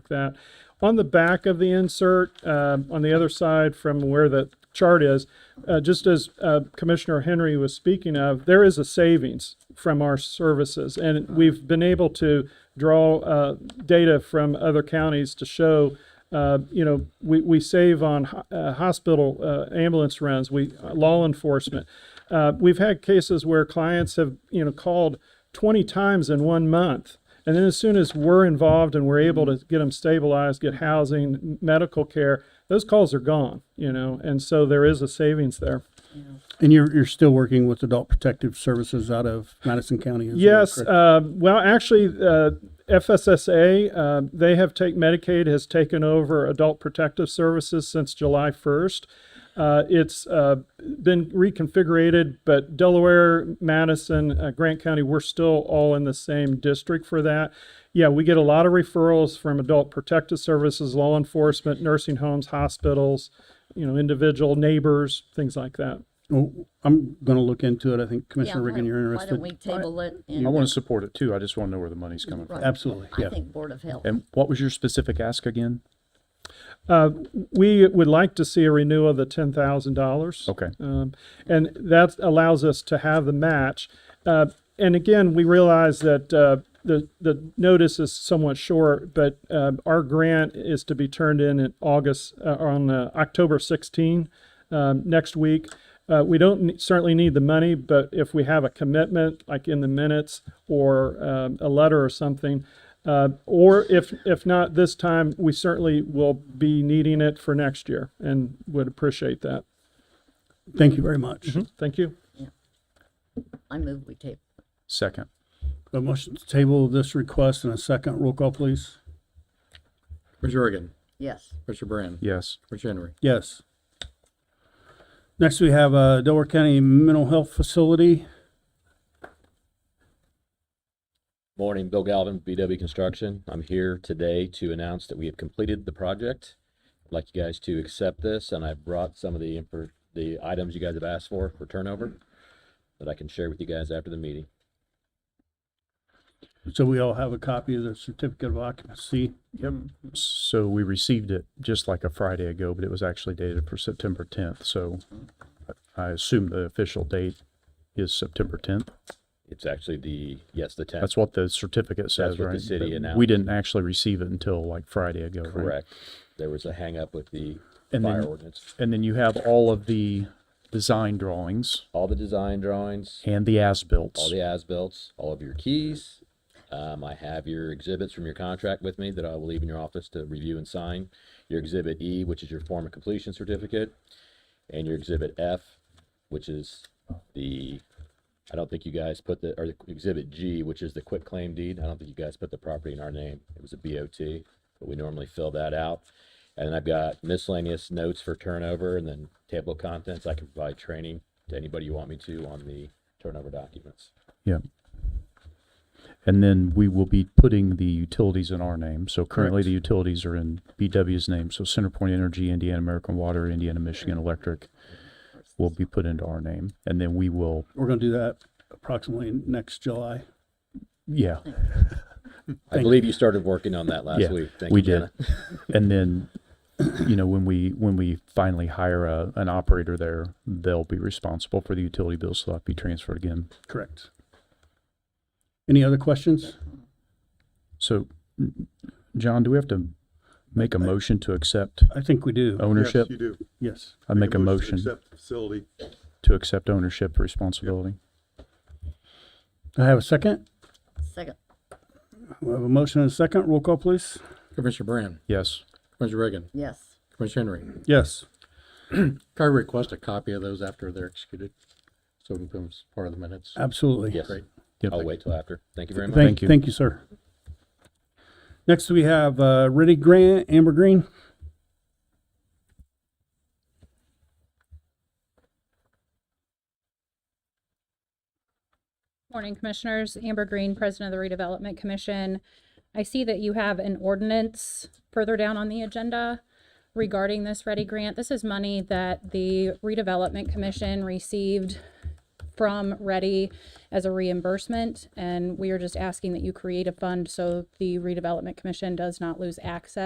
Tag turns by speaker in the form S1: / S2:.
S1: that. On the back of the insert, um, on the other side from where the chart is, uh, just as uh, Commissioner Henry was speaking of, there is a savings from our services. And we've been able to draw uh, data from other counties to show uh, you know, we, we save on ho- uh, hospital uh, ambulance runs, we law enforcement. Uh, we've had cases where clients have you know called 20 times in one month, and then as soon as we're involved and we're able to get them stabilized, get housing, m- medical care, those calls are gone. You know, and so there is a savings there.
S2: And you're, you're still working with Adult Protective Services out of Madison County? is that
S1: Yes.
S2: correct?
S1: Uh, well, actually, uh, FSSA uh, they have take Medicaid has taken over Adult Protective Services since July first. Uh, it's uh, been reconfigured, but Delaware, Madison, uh, Grant County, we're still all in the same district for that. Yeah, we get a lot of referrals from Adult Protective Services, law enforcement, nursing homes, hospitals, you know, individual neighbors, things like that.
S2: Well, I'm going to look into it. I think Commissioner
S3: Yeah, why
S2: Reagan,
S3: don't-
S2: you're
S3: Why don't
S2: interested.
S3: we table it?
S4: I
S3: and-
S4: want to support it too. I just want to know where the money's coming from.
S3: Right.
S2: Absolutely,
S3: I
S2: yeah.
S3: think Board of Health.
S4: And what was your specific ask again?
S1: We would like to see a renewal of the ten thousand dollars.
S4: Okay.
S1: Um, and that allows us to have the match. Uh, and again, we realize that uh, the the notice is somewhat short, but um, our grant is to be turned in in August uh, on uh, October 16 um, next week. Uh, we don't ne- certainly need the money, but if we have a commitment, like in the minutes or um, a letter or something, uh, or if if not this time, we certainly will be needing it for next year, and would appreciate that.
S2: Thank you very much.
S1: Thank you.
S3: I move we table.
S4: Second.
S2: A motion to table this request and a second. Roll call, please.
S5: Commissioner Reagan,
S3: Yes,
S5: Commissioner Brand,
S4: Yes.
S5: Commissioner Henry.
S2: Yes. Next, we have uh, Delaware County Mental Health Facility.
S6: Morning, Bill Galvin, BW Construction. I'm here today to announce that we have completed the project. I'd like you guys to accept this, and I brought some of the, imper- the items you guys have asked for for turnover that I can share with you guys after the meeting.
S2: So we all have a copy of the certificate of occupancy.
S4: Yep. So we received it just like a Friday ago, but it was actually dated for September tenth, so I assume the official date is September tenth.
S6: It's actually the, yes, the tenth.
S4: That's what the certificate says,
S6: That's what the
S4: right?
S6: city
S4: But We
S6: announced.
S4: didn't actually receive it until like Friday ago, right?
S6: Correct. There was a hangup with the
S4: And then-
S6: fire ordinance.
S4: And then you have all of the design drawings
S6: All the design drawings,
S4: and the as-built.
S6: all the as-bills, all of your keys. Um, I have your exhibits from your contract with me that I will leave in your office to review and sign. Your exhibit E, which is your form of completion certificate, and your exhibit F, which is the, I don't think you guys put the, or the exhibit G, which is the quit claim deed. I don't think you guys put the property in our name. It was a BOT, but we normally fill that out. And then I've got miscellaneous notes for turnover and then table of contents. I can provide training to anybody you want me to on the turnover documents.
S4: Yeah. And then we will be putting the utilities in our name. So currently the utilities are in BW's name. So CenterPoint Energy, Indiana American Water, Indiana Michigan Electric will be put into our name. And then we will,
S2: We're going to do that approximately next July.
S4: yeah,
S6: I believe you started working on that last
S4: yeah,
S6: week. Thank
S4: we
S6: you,
S4: did.
S6: Jenna.
S4: And then, you know, when we, when we finally hire a, an operator there, they'll be responsible for the utility bills. So that'll be transferred again.
S2: Correct. Any other questions?
S4: So, n- John, do we have to make a motion to accept
S2: I think we do.
S4: ownership?
S7: Yes, you do.
S2: Yes.
S4: I make a motion
S7: to accept the facility.
S4: to accept ownership responsibility.
S2: I have a second.
S3: second,
S2: We have a motion and a second. Roll call, please.
S5: Commissioner Brand,
S4: Yes.
S5: Commissioner Reagan,
S3: yes,
S5: Commissioner Henry.
S2: Yes.
S5: Can I request a copy of those after they're executed? So it becomes part of the minutes.
S2: Absolutely.
S6: Yes.
S5: Great.
S4: Yep.
S6: I'll wait till after. Thank you very much.
S2: Thank,
S4: you.
S2: thank you, sir. Next, we have uh, Riddick Grant, Amber Green.
S8: Morning, Commissioners. Amber Green, President of the Redevelopment Commission. I see that you have an ordinance further down on the agenda regarding this ready grant. This is money that the Redevelopment Commission received from Ready as a reimbursement, and we are just asking that you create a fund so the Redevelopment Commission does not lose access